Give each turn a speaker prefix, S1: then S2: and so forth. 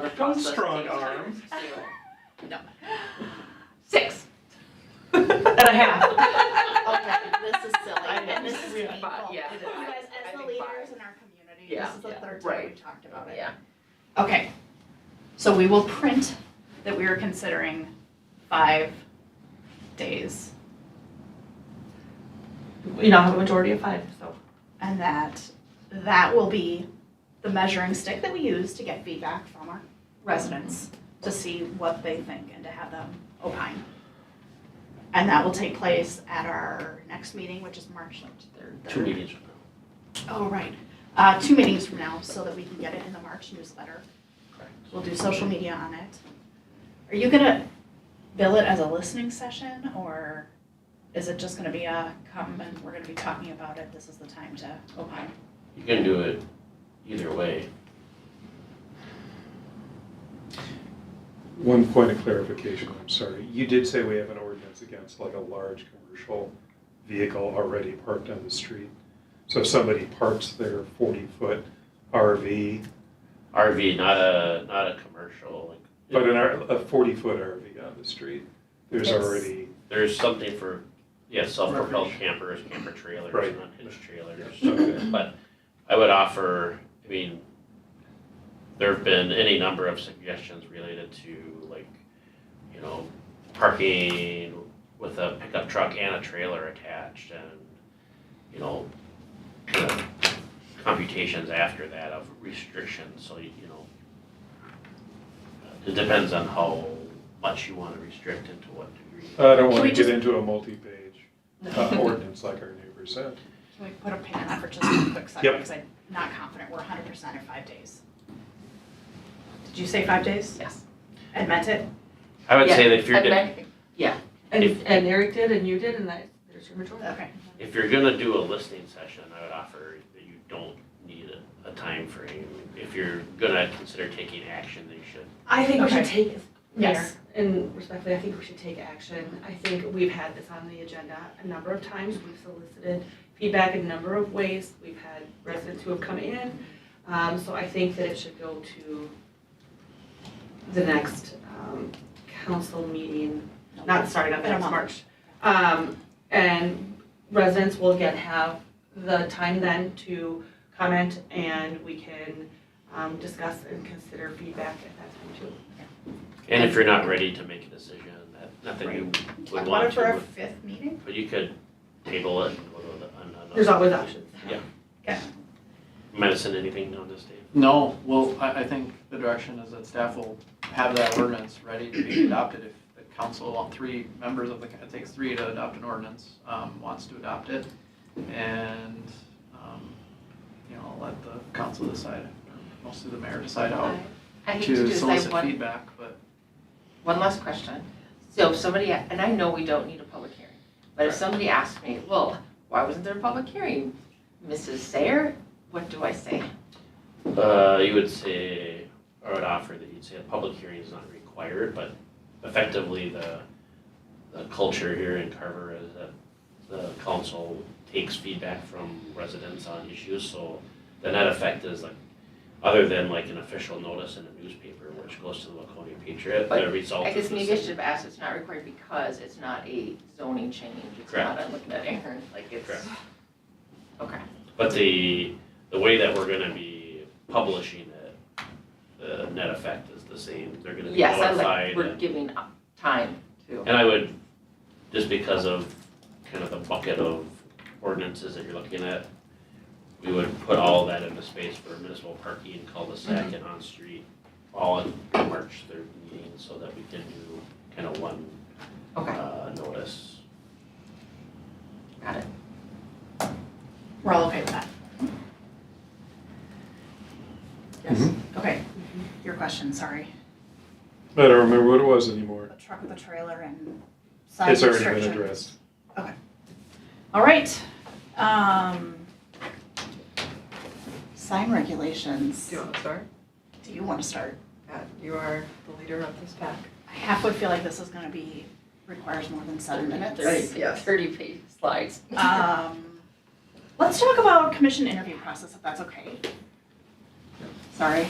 S1: Don't
S2: process
S1: strong
S2: takes time
S1: arm.
S2: to do it.
S3: Six. and a half.
S4: Okay, this is
S3: I
S4: silly, and
S3: know.
S4: this is
S3: Yeah,
S4: painful.
S3: but- yeah.
S4: You guys,
S3: I
S4: as the
S3: think five.
S4: leaders in our community,
S3: Yeah,
S4: this is the
S3: yeah.
S4: third time
S3: Right.
S4: we've talked about it.
S3: Yeah.
S4: Okay, so we will print that we are considering five days
S3: You know, a majority of five, so.
S4: and that that will be the measuring stick that we use to get feedback from our residents to see what they think and to have them opine. And that will take place at our next meeting, which is March like third.
S5: Two
S4: third.
S5: meetings.
S4: Oh, right. Uh, two meetings from now, so that we can get it in the March newsletter.
S5: Correct.
S4: We'll do social media on it. Are you gonna bill it as a listening session, or is it just gonna be a come and we're gonna be talking about it, this is the time to opine?
S5: You can do it either way.
S6: One point of clarification, I'm sorry. You did say we have an ordinance against like a large commercial vehicle already parked on the street. So if somebody parks their 40-foot RV,
S5: RV, not a, not a commercial,
S6: but
S5: like,
S6: an, R- a 40-foot RV on the street, there's
S4: It's-
S6: already,
S5: there's something for, yeah, self-propelled campers, camper trailers,
S6: Right.
S5: not hitch trailers.
S6: Okay.
S5: But I would offer, I mean, there've been any number of suggestions related to like, you know, parking with a pickup truck and a trailer attached and, you know, kind of computations after that of restrictions, so you, you know. It depends on how much you wanna restrict and to what degree.
S6: I don't want
S4: we
S6: to get
S4: just-
S6: into a multi-page uh, ordinance like our neighbors said.
S4: Can we put a pin in that for just a quick second,
S6: Yep.
S4: because I'm not confident we're hundred percent in five days. Did you say five days?
S3: Yes.
S4: I meant it?
S5: I would say
S3: Yeah,
S5: that if you're,
S2: And
S5: gonna-
S2: then-
S3: And,
S5: If-
S3: and Eric did, and you did, and that, there's your majority.
S4: Okay.
S5: if you're gonna do a listening session, I would offer that you don't need a, a timeframe. If you're gonna consider taking action, then you should.
S7: I think we should
S4: Okay.
S7: take, Mayor,
S4: Yes.
S7: and respectfully, I think we should take action. I think we've had this on the agenda a number of times. We've solicited feedback in a number of ways. We've had residents who have come in. Um, so I think that it should go to the next, um, council meeting, not starting up
S4: In a
S7: next
S4: month.
S7: March. Um, and residents will again have the time then to comment and we can, um, discuss and consider feedback at that time too.
S5: And if you're not ready to make a decision, that, not that you would want
S4: for a
S5: to,
S4: fifth meeting?
S5: but you could table it and go to the- another.
S7: There's always options.
S5: Medicine, anything on this, Dave?
S8: No, well, I, I think the direction is that staff will have that ordinance ready to be adopted if the council, all three members of the, it takes three to adopt an ordinance, um, wants to adopt it. And, um, you know, I'll let the council decide, or mostly the mayor decide how
S2: I hate to do
S8: to
S2: this, I have
S8: solicit
S2: one,
S8: feedback, but
S2: one last question. So if somebody, and I know we don't need a public hearing, but if somebody asks me, well, why wasn't there a public hearing? Mrs. Sayer, what do I say?
S5: Uh, you would say, or would offer that you'd say a public hearing is not required, but effectively the, the culture here in Carver is that the council takes feedback from residents on issues, so the net effect is like, other than like an official notice in a newspaper, which goes to the Waconia Patriot, the
S2: But
S5: result
S2: I
S5: is the
S2: guess maybe I
S5: same.
S2: should have asked, it's not required because it's not a zoning change, it's
S5: Correct.
S2: not, I'm looking at Aaron, like it's.
S5: Correct.
S2: Okay,
S5: But the, the way that we're gonna be publishing it, the net effect is the same, they're gonna be
S2: yes, I
S5: notified
S2: like,
S5: and-
S2: we're giving up time to.
S5: And I would, just because of kind of the bucket of ordinances that you're looking at, we would put all that into space for municipal parking and cul-de-sac and on-street, all in March third meeting, so that we can do kind of one,
S2: Okay.
S5: uh, notice.
S2: Got it.
S4: We're all okay with that?
S6: Mm-hmm.
S4: Yes, okay. Your question, sorry.
S6: I don't remember what it was anymore.
S4: A truck with a trailer and size
S6: It's
S4: restrictions.
S6: already been addressed.
S4: All right, um. Sign regulations.
S7: Do you want to start?
S4: Do you want to start?
S7: Pat, you are the leader of this pack.
S4: I half would feel like this is gonna be, requires more than seven minutes.
S7: Right, yes.
S2: Thirty page slides.
S4: Um, let's talk about commission interview process, if that's okay. Sorry.